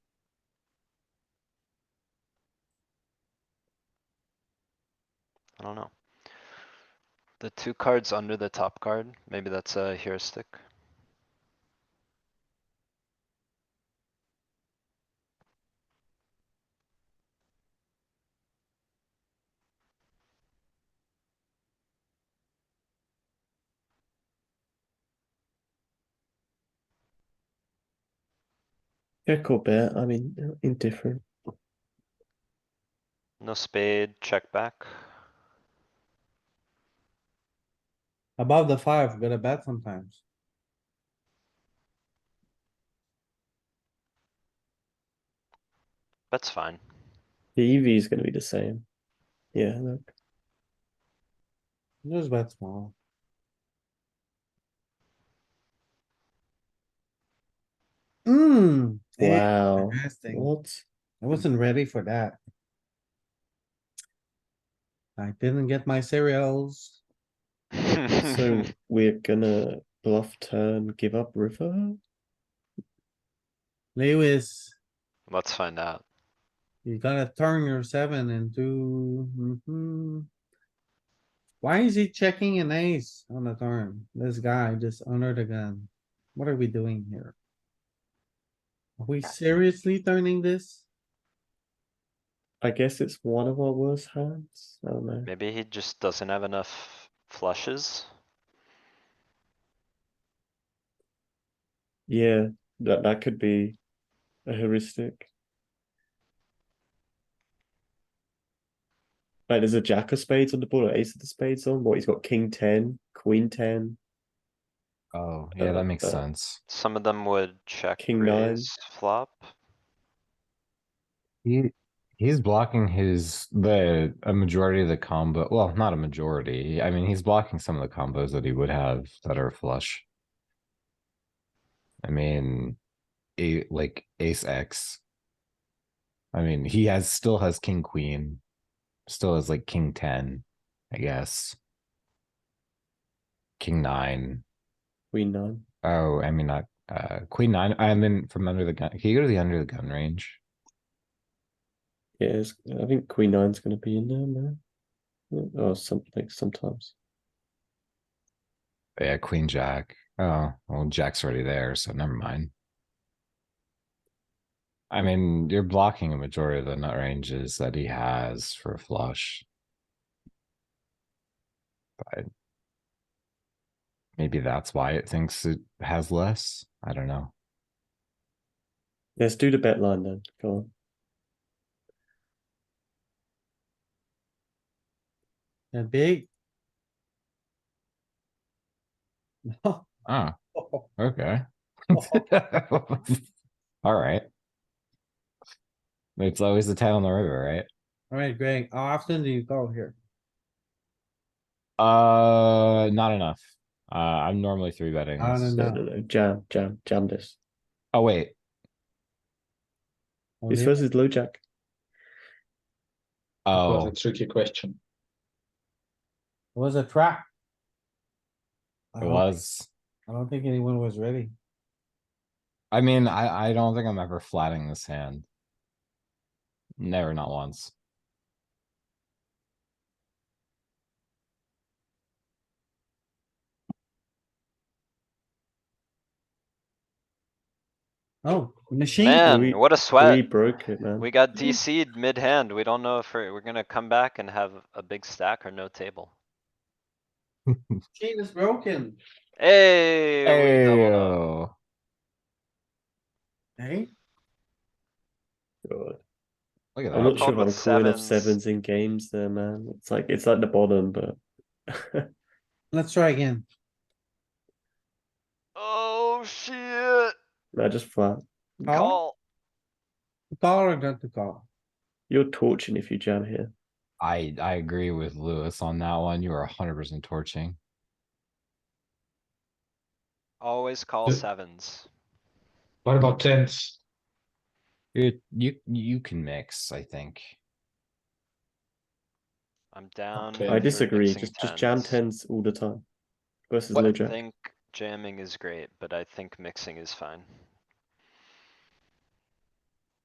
I don't know. The two cards under the top card, maybe that's a heuristic. Check or bet, I mean, uh, indifferent. No spade, check back. Above the five, we're gonna bet sometimes. That's fine. The EV is gonna be the same. Yeah, look, Just bet small. Hmm. wow, Interesting. what? I wasn't ready for that. I didn't get my cereals. So we're gonna bluff turn, give up river? Lewis, Let's find out. you gotta turn your seven into, mhm. Why is he checking an ace on the turn? This guy just under the gun. What are we doing here? Are we seriously turning this? I guess it's one of our worst hands, I don't know. Maybe he just doesn't have enough flushes. Yeah, that, that could be a heuristic. Like there's a jack of spades on the board, or ace of the spades on, what, he's got king ten, queen ten, Oh, yeah, that makes Uh, sense. Some of them would check King nine. raise flop. He he's blocking his the a majority of the combo. Well, not a majority. I mean, he's blocking some of the combos that he would have that are flush. I mean, a like ace x. I mean, he has still has king queen, still has like king ten, I guess. King nine. queen nine. Oh, I mean not uh queen nine. I'm in from under the gun. Can you go to the under the gun range? Yeah, it's, I think queen nine's gonna be in there, man. Yeah, Or something, sometimes. Yeah, queen jack. Oh, well, jack's already there, so never mind. I mean, you're blocking a majority of the nut ranges that he has for a flush. But maybe that's why it thinks it has less. I don't know. Let's do the bet line then, go on. That big? Oh, What okay. All right. It's always the tail on the river, right? Alright, Greg, how often do you go here? Uh, not enough. Uh, I'm normally three betting. Not this. enough. No, no, no, jam, jam, jam this. Oh, wait. This versus low jack. Oh, was a tricky question. It was a trap. I it don't- was. I don't think anyone was ready. I mean, I, I don't think I'm ever flatting this hand. Never, not once. Oh, machine. Man, we- what a We sweat. broke it, man. We got DC'd mid-hand. We don't know if we're, we're gonna come back and have a big stack or no table. Machine is broken. Hey, we doubled uh, up. Ayo. Hey, God. Look at I'm not Problem sure if I'm that. calling off sevens. sevens in games there, man. It's like it's like the bottom, but let's try again. Oh, shit. no, just flat. Call, Call. call or not to call? You're torching if you jam here. I, I agree with Lewis on that one. You are hundred percent torching. Always call Uh, sevens. What about tens? You, you, you can mix, I think. I'm down. Okay. for I disagree. mixing Just just jam 10s. tens all the time versus What no I jack. think jamming is great, but I think mixing is fine.